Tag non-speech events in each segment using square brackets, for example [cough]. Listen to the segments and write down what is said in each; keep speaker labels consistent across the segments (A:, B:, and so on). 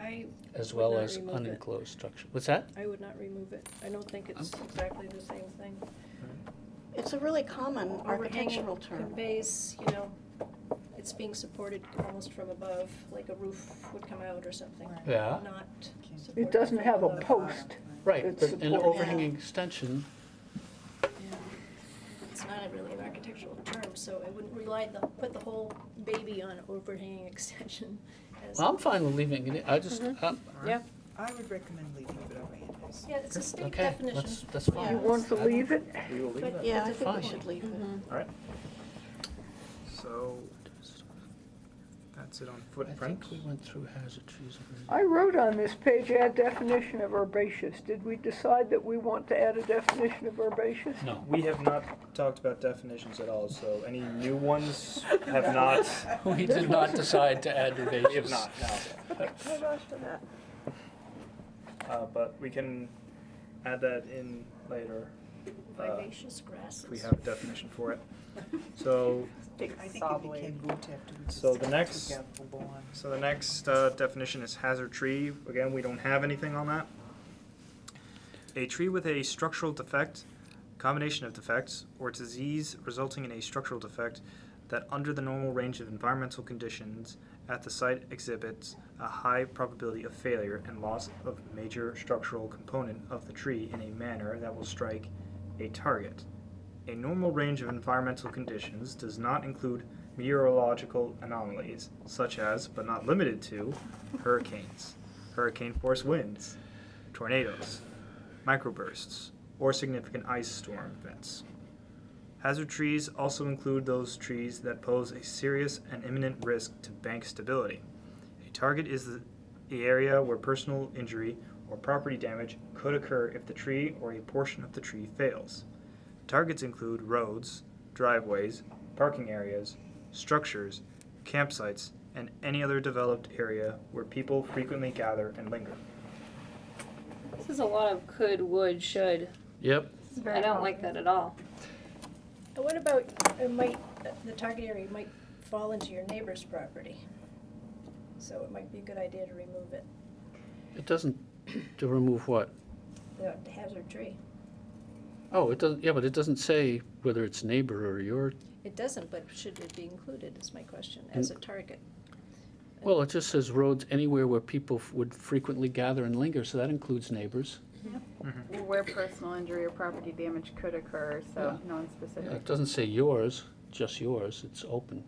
A: I
B: as
A: would
B: well
A: not
B: as
A: remove it.
B: unenclosed structure. What's that?
A: I would not remove it. I don't think it's exactly the same thing.
C: It's a really common
A: Overhanging
C: architectural term.
A: Conveys, you know, it's being supported almost from above, like a roof would come out or something.
D: Right.
B: Yeah,
A: Not supported
E: It doesn't
A: from
E: have a
A: above.
E: post.
B: right,
E: It's
B: but an
E: supported.
B: overhanging extension,
A: It's not a really an architectural term, so I wouldn't rely, the put the whole baby on overhanging [laughs] extension as.
B: Well, I'm fine with leaving it, in. I just, um,
A: Yeah,
D: I would recommend leaving it over is.
A: yeah, it's a state
B: okay,
A: definition.
B: that's, that's
A: Yeah.
E: You
B: fine.
E: want to leave it?
F: We will leave
A: But-
F: it.
C: Yeah, I think
B: Fine.
C: we should leave it.
G: Mm-hmm.
F: All right. So that's it on
B: I
F: footprint.
B: think we went through hazard trees. already.
E: I wrote on this page, add definition of herbaceous. Did we decide that we want to add a definition of herbaceous?
B: No,
F: We have not talked about definitions at all, so any new ones have not.
B: we did not decide to add
F: We have
B: herbaceous.
F: not, no.
E: I've asked for that.
F: Uh, but we can add that in later
B: uh,
A: Vivacious grasses.
F: if we have a definition for it. So,
D: I think it became moot after we just.
F: So the next-
D: took out the lawn.
F: so the next uh, definition is hazard tree. Again, we don't have anything on that. A tree with a structural defect, combination of defects, or disease resulting in a structural defect that, under the normal range of environmental conditions at the site, exhibits a high probability of failure and loss of major structural component of the tree in a manner that will strike a target. A normal range of environmental conditions does not include meteorological anomalies, such as, but not limited to, hurricanes, hurricane force winds, tornadoes, microbursts, or significant ice storm events. Hazard trees also include those trees that pose a serious and imminent risk to bank stability. A target is the, the area where personal injury or property damage could occur if the tree or a portion of the tree fails. Targets include roads, driveways, parking areas, structures, campsites, and any other developed area where people frequently gather and linger.
G: This is a lot of could, would, should.
B: Yep,
G: I don't like that at all.
A: And What about, it might, the target area might fall into your neighbor's property. So it might be a good idea to remove it,
B: it doesn't, to remove what?
A: the hazard tree.
B: Oh, it doesn't, yeah, but it doesn't say whether it's neighbor or your,
A: It doesn't, but should it be included, is my question, as a
B: Mm.
A: target?
B: well, it just says roads anywhere where people f- would frequently gather and linger, so that includes neighbors.
H: Where personal injury or property damage could occur, so non-specific.
B: Yeah, It doesn't say yours, just yours, it's open.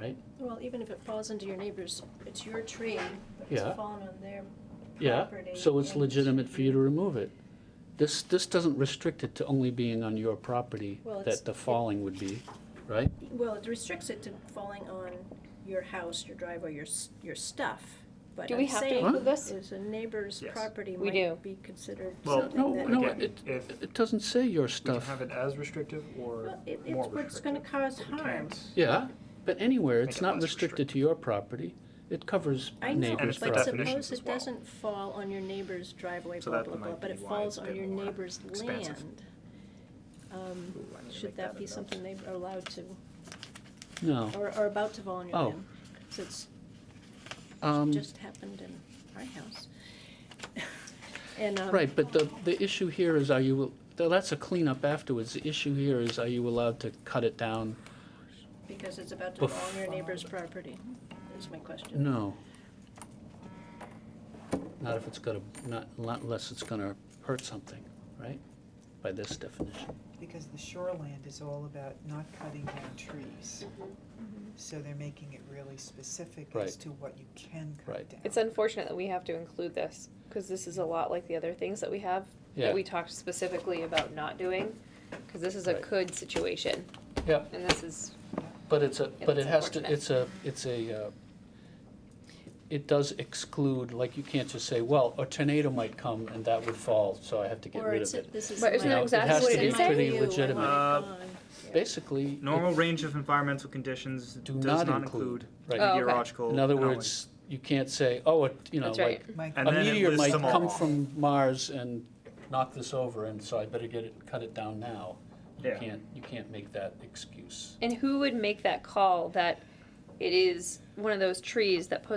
B: Right?
A: Well, even if it falls into your neighbor's, it's your tree, but it's
B: Yeah.
A: fallen on their
B: Yeah,
A: property.
B: so it's
A: and
B: legitimate for you to remove it. This, this doesn't restrict it to only being on your property
A: Well, it's-
B: that the falling would be, right?
A: Well, it restricts it to falling on your house, your driveway, your, s- your stuff. But
G: Do we
A: I'm
G: have to
A: saying
B: include
G: this?
A: Is a neighbor's
F: Yes.
A: property
G: We do.
A: might be considered
F: Well,
A: something
B: No,
A: that.
B: no,
F: Again,
B: it,
F: if-
B: it doesn't say your
F: We can
B: stuff.
F: have it as restrictive or
A: Well, it- it's
F: more restrictive.
A: what's gonna cause
F: but we
A: harm.
F: can't-
B: Yeah, but anywhere, it's
F: Make it
B: not
F: less
B: restricted to your property. It covers
A: I know,
F: And
B: neighbor's
F: it's for
A: but
B: property.
F: definitions
A: suppose
F: as
A: it
F: well.
A: doesn't fall on your neighbor's driveway,
F: So
A: blah,
F: that
A: blah,
F: might
A: blah, but
F: be
A: it
F: why
A: falls
F: it's a
A: on
F: bit
A: your
F: more
A: neighbor's
F: expansive.
A: land. Um,
F: Ooh, I need to make
A: Should that
F: a
A: be
F: note.
A: something they are allowed to,
B: No.
A: or are about to fall on your
B: Oh.
A: land? Since
B: Um,
A: it just happened in our house. [laughs] And, um.
B: Right, but the, the issue here is are you, though that's a cleanup afterwards. The issue here is are you allowed to cut it down?
A: Because it's about to
B: Bef-
A: fall on your neighbor's property, is my question.
B: No. Not if it's gonna, not, not unless it's gonna hurt something, right? By this definition.
D: Because the shoreland is all about not cutting down trees.
E: Mm-hmm.
D: So they're making it really specific
B: Right.
D: as to what you can
B: Right.
D: cut down.
G: It's unfortunate that we have to include this because this is a lot like the other things that we have
B: Yeah.
G: that we talked specifically about not doing. Because this is a
B: Right.
G: could situation,
B: Yeah.
G: and this is
B: But it's a, but it
G: it's
B: has to,
G: unfortunate.
B: it's a, it's a, uh, it does exclude, like, you can't just say, well, a tornado might come and that would fall, so I have to get
A: Or
B: rid
A: it's,
B: of it.
A: this is.
G: But isn't
A: my-
G: that exactly
A: this
G: what
A: is
G: it
A: my
G: said?
B: Pretty
A: view, I want it
B: legitimate.
F: Uh,
A: gone.
B: Basically.
F: Normal range of environmental conditions
B: Do
F: does
B: not
F: not
B: include,
F: include
B: right.
G: Oh, okay.
F: meteorological.
B: In other
F: anomalies.
B: words, you can't say, oh, it, you know,
G: that's right.
B: like,
D: Mike,
B: a
F: And then it
B: meteor
F: lists
B: might
F: them
B: come
F: all.
B: from Mars and knock this over, and so I better get it, cut it down now. You
F: Yeah.
B: can't, you can't make that excuse.
G: And who would make that call that it is one of those trees that poses